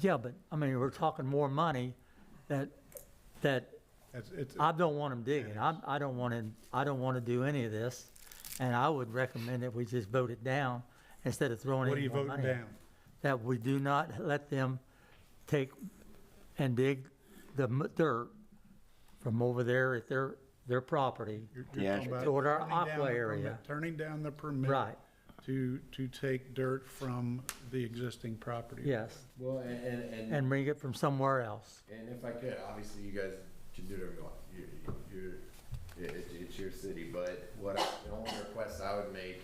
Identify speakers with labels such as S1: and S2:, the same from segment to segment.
S1: Yeah, but, I mean, we're talking more money that, that
S2: It's, it's,
S1: I don't want them digging. I, I don't want to, I don't want to do any of this. And I would recommend that we just vote it down instead of throwing
S2: what are
S1: any
S2: you
S1: more
S2: voting
S1: money. at it.
S2: down?
S1: That we do not let them take and dig the m- dirt from over there at their, their property.
S2: You're- you're
S3: Yeah.
S2: talking about
S1: Toward our
S2: turning down the
S1: aqua area.
S2: permit- Turning down the permit.
S1: Right,
S2: To, to take dirt from the existing property.
S1: yes.
S4: Well, and, and, and,
S1: And bring it from somewhere else.
S4: and if I could, obviously you guys can do whatever you want. You, you, you're, it, it- it's your city, but what, I- the only request I would make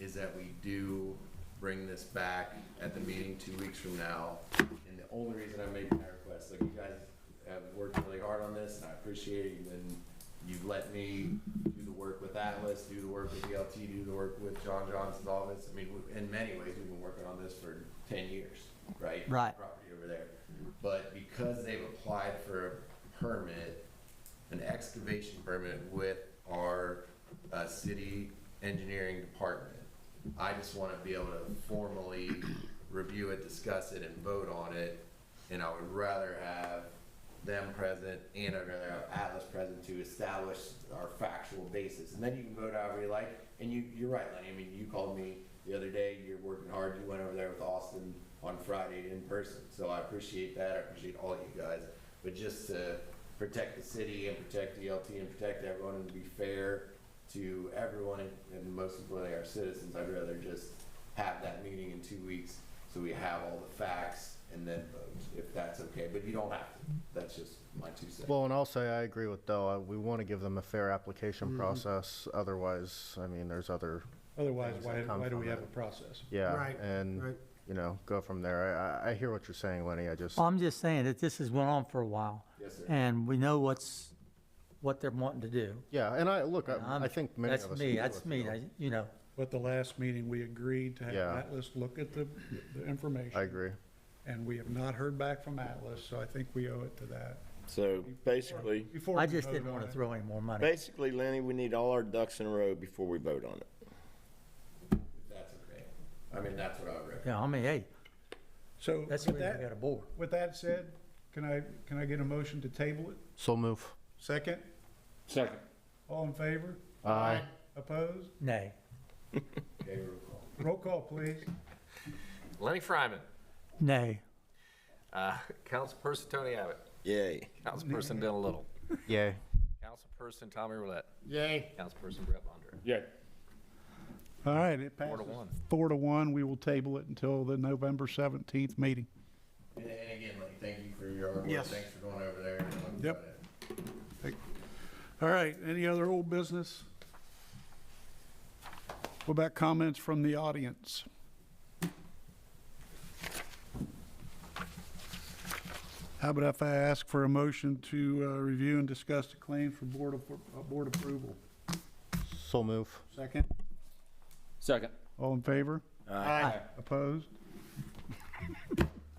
S4: is that we do bring this back at the meeting two weeks from now. And the only reason I'm making that request, like you guys have worked really hard on this, and I appreciate it, and you've let me do the work with Atlas, do the work with ELT, do the work with John Johnson's office. I mean, we- in many ways, we've been working on this for ten years, right?
S1: Right.
S4: Property over there. But because they've applied for a permit, an excavation permit with our, uh, city engineering department, I just wanna be able to formally review it, discuss it, and vote on it. And I would rather have them present and I'd rather have Atlas present to establish our factual basis. And then you can vote however you like. And you, you're right, Lenny. I mean, you called me the other day. You're working hard. You went over there with Austin on Friday in person. So I appreciate that. I appreciate all you guys. But just to protect the city and protect ELT and protect everyone and be fair to everyone and most importantly our citizens, I'd rather just have that meeting in two weeks so we have all the facts and then vote, if that's okay. But you don't have to. That's just my two cents.
S5: Well, and also I agree with Dell. Uh, We want to give them a fair
S6: Mm-hmm.
S5: application process. Otherwise, I mean, there's other,
S2: Otherwise,
S5: Things
S2: why,
S5: that come
S2: why do we
S5: from
S2: have
S5: it.
S2: a process?
S5: yeah.
S6: Right,
S5: And,
S6: right.
S5: you know, go from there. I- I, I hear what you're saying, Lenny. I just,
S1: I'm just saying that this has went on for a while.
S4: Yes, sir.
S1: And we know what's, what they're wanting to do.
S5: yeah, and I, look, I
S1: I'm-
S5: I think many of us.
S1: That's me,
S5: agree
S1: that's
S5: with
S1: me,
S5: you.
S1: I- you know,
S2: But the last meeting, we agreed to have
S5: Yeah.
S2: Atlas look at the, the information.
S5: I agree.
S2: And we have not heard back from Atlas, so I think we owe it to that.
S3: So basically,
S2: Before
S1: I
S2: we
S1: just
S2: vote
S1: didn't
S2: on
S1: want
S2: it.
S1: to throw any more money.
S3: basically, Lenny, we need all our ducks in a row before we vote on it.
S4: If that's okay. I mean, that's what I would recommend.
S1: Yeah, I mean, hey,
S2: So
S1: that's the reason
S2: with
S1: we got
S2: that,
S1: a board.
S2: with that said, can I, can I get a motion to table it?
S5: So move.
S2: Second? Second. All in favor?
S5: Aye.
S2: Opposed?
S1: Nay.
S4: Okay, roll call.
S2: Roll call, please.
S7: Lenny Fryman,
S1: Nay.
S7: uh, Councilperson Tony Abbott,
S3: Yay.
S7: Councilperson Dylan Little,
S5: Yay.
S7: Councilperson Tommy Roulette,
S6: Yay.
S7: Councilperson Brett Bonder.
S2: All right, it
S7: Four
S2: passes.
S7: to one.
S2: Four to one, we will table it until the November 17th meeting.
S4: And and again, Lenny, thank you for your hard work.
S6: Yes.
S4: Thanks for going over there. and talking
S2: Yep.
S4: about it.
S2: All right, any other old business? What about comments from the audience? How about if I ask for a motion to uh, review and discuss the claims for board, appro- uh, board approval?
S5: So move.
S2: Second?
S7: Second.
S2: All in favor?
S6: Aye.
S2: Opposed?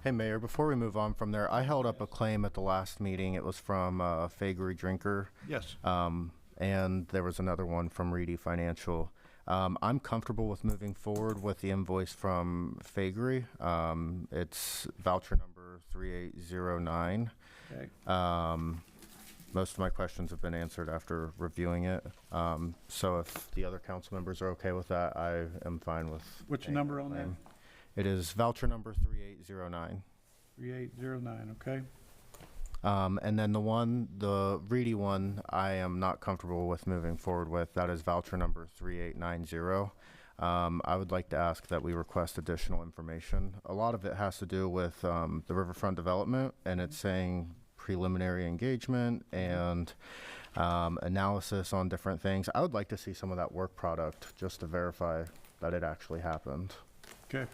S5: Hey, Mayor, before we move on from there, I held up a claim at the last meeting. It was from uh, Fagery Drinker.
S2: Yes.
S5: Um, and there was another one from Reedy Financial. Um, I'm comfortable with moving forward with the invoice from Fagery. Um, it's voucher number 3809.
S2: Okay.
S5: Um, most of my questions have been answered after reviewing it. Um, so if the other council members are okay with that, I am fine with.
S2: What's the
S5: paying
S2: number on that?
S5: claim. It is voucher number 3809.
S2: 3809, okay?
S5: Um, and then the one, the Reedy one, I am not comfortable with moving forward with. That is voucher number 3890. Um, I would like to ask that we request additional information. A lot of it has to do with um, the riverfront development, and it's saying preliminary engagement and um, analysis on different things. I would like to see some of that work product just to verify that it actually happened.
S2: Okay.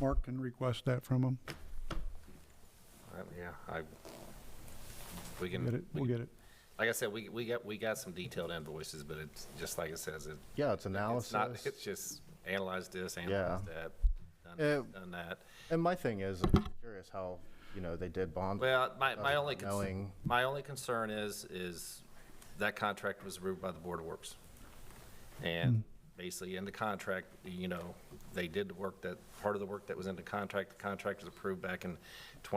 S2: Mark can request that from them.
S7: Yeah, I, we can,
S2: Get it,
S7: we
S2: we'll
S7: can-
S2: get it.
S7: like I said, we, we got, we got some detailed invoices, but it's just like it says, it,
S5: Yeah, it's analysis.
S7: it's not, it's just analyze this, analyze that, done this,
S5: Uh,
S7: done that.
S5: And my thing is, I'm curious how, you know, they did bond.
S7: Well, my, my
S5: Other
S7: only,
S5: than
S7: cons-
S5: knowing-
S7: my only concern is, is that contract was approved by the Board of Works. And basically in the contract, you know, they did the work that, part of the work that was in the contract, the contract was approved back in twenty